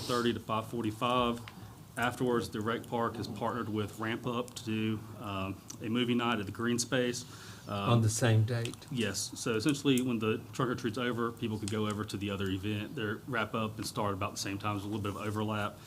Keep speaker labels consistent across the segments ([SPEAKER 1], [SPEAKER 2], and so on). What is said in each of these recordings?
[SPEAKER 1] thirty to five forty-five. Afterwards, the rec park is partnered with Ramp Up to do um, a movie night at the green space. Um,
[SPEAKER 2] on the same date.
[SPEAKER 1] Yes, so essentially, when the trunk or treat's over, people could go over to the other event, their wrap up and start about the same time, there's a little bit of overlap.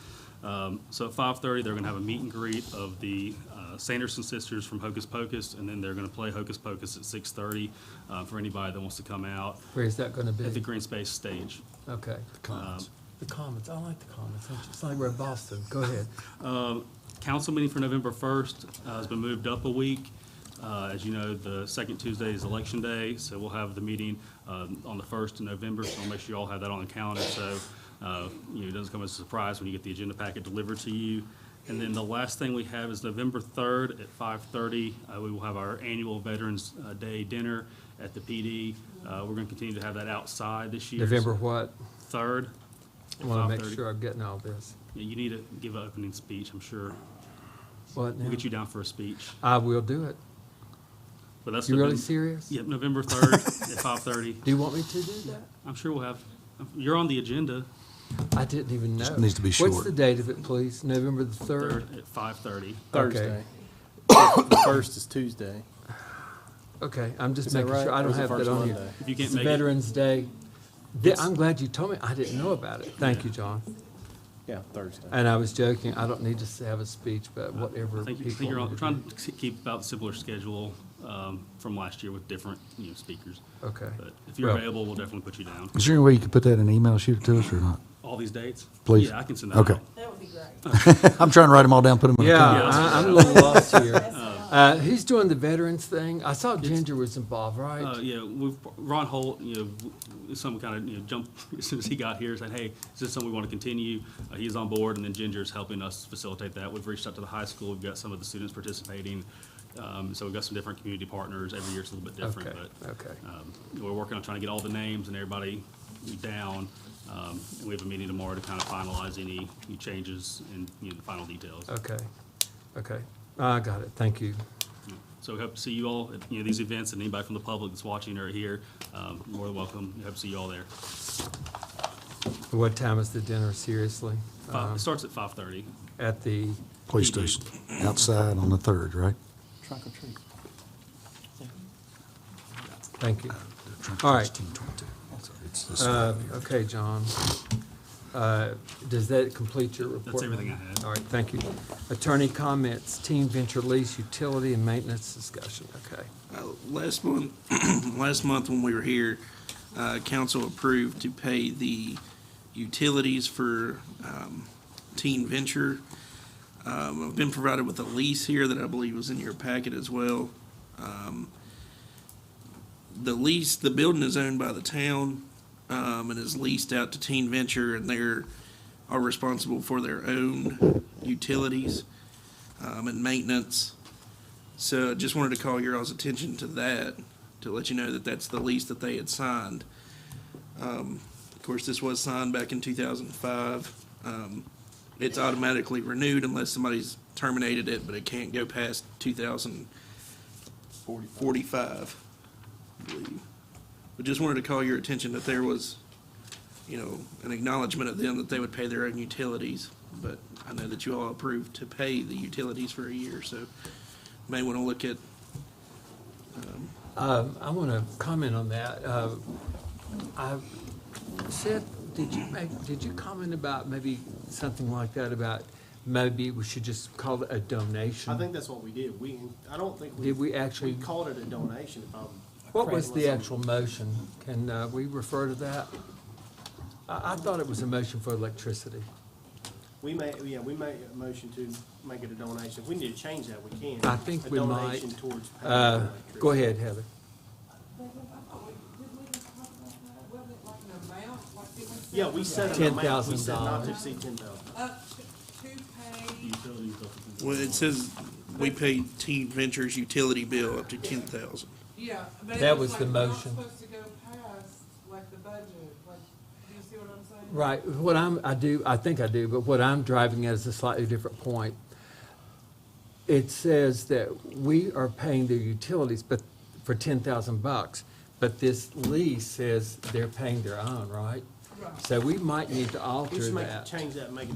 [SPEAKER 1] Um, So at five thirty, they're gonna have a meet and greet of the uh, Sanderson sisters from Hocus Pocus, and then they're gonna play Hocus Pocus at six thirty uh, for anybody that wants to come out
[SPEAKER 2] Where is that going to
[SPEAKER 1] at the
[SPEAKER 2] be?
[SPEAKER 1] green space stage.
[SPEAKER 2] Okay.
[SPEAKER 3] Commons. Um, The Commons, I like the Commons. It's- It's like we're in Boston.
[SPEAKER 2] Go ahead.
[SPEAKER 1] Council meeting for November first uh, has been moved up a week. Uh, As you know, the second Tuesday is Election Day, so we'll have the meeting um, on the first of November, so I'll make sure you all have that on the calendar, so, uh, you know, it doesn't come as a surprise when you get the agenda packet delivered to you. And then the last thing we have is November third at five-thirty, we will have our annual Veterans uh, Day dinner at the PD. Uh, We're gonna continue to have that outside this year.
[SPEAKER 2] November what?
[SPEAKER 1] Third.
[SPEAKER 2] I want to make sure I'm getting all this.
[SPEAKER 1] You need to give an opening speech, I'm sure.
[SPEAKER 2] What
[SPEAKER 1] We'll
[SPEAKER 2] now?
[SPEAKER 1] get you down for a speech.
[SPEAKER 2] I will do it.
[SPEAKER 1] But that's
[SPEAKER 2] You really
[SPEAKER 1] November-
[SPEAKER 2] serious?
[SPEAKER 1] Yep, November third at five thirty.
[SPEAKER 2] Do you want me to do that?
[SPEAKER 1] I'm sure we'll have. You're on the agenda.
[SPEAKER 2] I didn't even know.
[SPEAKER 3] Just needs to be
[SPEAKER 2] What's
[SPEAKER 3] short.
[SPEAKER 2] the date of it, please? November the third?
[SPEAKER 1] Third at five thirty.
[SPEAKER 2] Okay.
[SPEAKER 4] Thursday. The first is Tuesday.
[SPEAKER 2] Okay, I'm just
[SPEAKER 4] Is that
[SPEAKER 2] making
[SPEAKER 4] right?
[SPEAKER 2] sure. I
[SPEAKER 4] Or
[SPEAKER 2] don't
[SPEAKER 4] is it
[SPEAKER 2] have that
[SPEAKER 4] first
[SPEAKER 2] on here.
[SPEAKER 4] Monday?
[SPEAKER 1] If you can't
[SPEAKER 2] It's
[SPEAKER 1] make it,
[SPEAKER 2] Veterans Day. Th- I'm glad you told me. I didn't know about it. Thank you, John.
[SPEAKER 4] Yeah, Thursday.
[SPEAKER 2] And I was joking. I don't need to s- have a speech, but whatever
[SPEAKER 1] I think, I
[SPEAKER 2] people.
[SPEAKER 1] think Uh, you're on,
[SPEAKER 2] want
[SPEAKER 1] we're
[SPEAKER 2] to
[SPEAKER 1] trying
[SPEAKER 2] do.
[SPEAKER 1] to keep about similar schedule um, from last year with different you know speakers.
[SPEAKER 2] Okay.
[SPEAKER 1] But if you're
[SPEAKER 2] Well-
[SPEAKER 1] available, we'll definitely put you down.
[SPEAKER 3] Is there any way you could put that in an email, shoot it to us or not?
[SPEAKER 1] All these dates.
[SPEAKER 3] Please.
[SPEAKER 1] Yeah, I can send that.
[SPEAKER 3] Okay.
[SPEAKER 1] out.
[SPEAKER 5] That would be great.
[SPEAKER 3] I'm trying to write them all down, put them in a
[SPEAKER 2] Yeah,
[SPEAKER 3] calendar.
[SPEAKER 2] I, I'm a little lost here. Uh, who's doing the veterans thing? I saw Ginger was involved,
[SPEAKER 1] Uh,
[SPEAKER 2] right?
[SPEAKER 1] yeah, we've, Ron Holt, you know, w- some kind of, you know, jump, as soon as he got here, said, hey, is this something we want to continue? Uh, he's on board, and then Ginger's helping us facilitate that. We've reached out to the high school, we've got some of the students participating. Um, so we've got some different community partners. Every year it's a little bit
[SPEAKER 2] Okay,
[SPEAKER 1] different, but,
[SPEAKER 2] okay.
[SPEAKER 1] um, we're working on trying to get all the names and everybody down. Um, and we have a meeting tomorrow to kind of finalize any any changes and, you know, the final details.
[SPEAKER 2] Okay, okay. I got it. Thank you.
[SPEAKER 1] So we hope to see you all at, you know, these events, and anybody from the public that's watching or here, um, more than welcome. Hope to see you all there.
[SPEAKER 2] What time is the dinner, seriously?
[SPEAKER 1] Five,
[SPEAKER 2] Um,
[SPEAKER 1] it starts at five thirty.
[SPEAKER 2] At the,
[SPEAKER 3] Police station, outside on the third, right?
[SPEAKER 4] Trunk or treat.
[SPEAKER 2] thank you. All right. Uh, Okay, John. Uh, Does that complete your report?
[SPEAKER 1] everything I
[SPEAKER 2] ma'am?
[SPEAKER 1] had.
[SPEAKER 2] All right, thank you. Attorney comments, team venture lease, utility and maintenance discussion. Okay.
[SPEAKER 6] Uh, Last month, last month when we were here, uh, council approved to pay the utilities for um, Teen Venture. Um, I've been provided with a lease here that I believe was in your packet as well. Um, The lease, the building is owned by the town um, and is leased out to Teen Venture, and they're, are responsible for their own utilities um, and maintenance. So just wanted to call your all's attention to that, to let you know that that's the lease that they had signed. Um, Of course, this was signed back in 2005. Um, It's automatically renewed unless somebody's terminated it, but it can't go past 2045, I believe. But just wanted to call your attention that there was, you know, an acknowledgement of them that they would pay their own utilities. But I know that you all approved to pay the utilities for a year, so may want to look at,
[SPEAKER 2] Um, I want to comment on that. Uh, I- Seth, did you make, did you comment about maybe something like that about maybe we should just call it a donation?
[SPEAKER 7] I think that's what we did. We, I don't think we.
[SPEAKER 2] Did we actually-
[SPEAKER 7] We called it a donation, if I'm.
[SPEAKER 2] What was
[SPEAKER 7] correct.
[SPEAKER 2] the actual motion? Can uh, we refer to that? I, I thought it was a motion for electricity.
[SPEAKER 7] We made, yeah, we made a motion to make it a donation. If we need to change that, we can.
[SPEAKER 2] I think we
[SPEAKER 7] A
[SPEAKER 2] might.
[SPEAKER 7] donation towards. paying
[SPEAKER 2] Uh,
[SPEAKER 7] for
[SPEAKER 2] Go ahead, Heather.
[SPEAKER 7] electricity. Yeah, we set an amount. We said not
[SPEAKER 2] $10,000.
[SPEAKER 7] to exceed ten thousand.
[SPEAKER 5] Up to pay,
[SPEAKER 6] well, it says we paid Teen Ventures utility bill up to ten thousand.
[SPEAKER 5] yeah, but
[SPEAKER 2] That
[SPEAKER 5] it
[SPEAKER 2] was
[SPEAKER 5] was like,
[SPEAKER 2] the
[SPEAKER 5] we're not
[SPEAKER 2] motion.
[SPEAKER 5] supposed to go past, like, the budget, like, do you see what I'm saying?
[SPEAKER 2] Right, what I'm, I do, I think I do, but what I'm driving at is a slightly different point. It says that we are paying their utilities, but, for ten thousand bucks, but this lease says they're paying their own, right?
[SPEAKER 5] Right.
[SPEAKER 2] So we might need to
[SPEAKER 7] We
[SPEAKER 2] alter
[SPEAKER 7] should make,
[SPEAKER 2] that.
[SPEAKER 7] change that and make it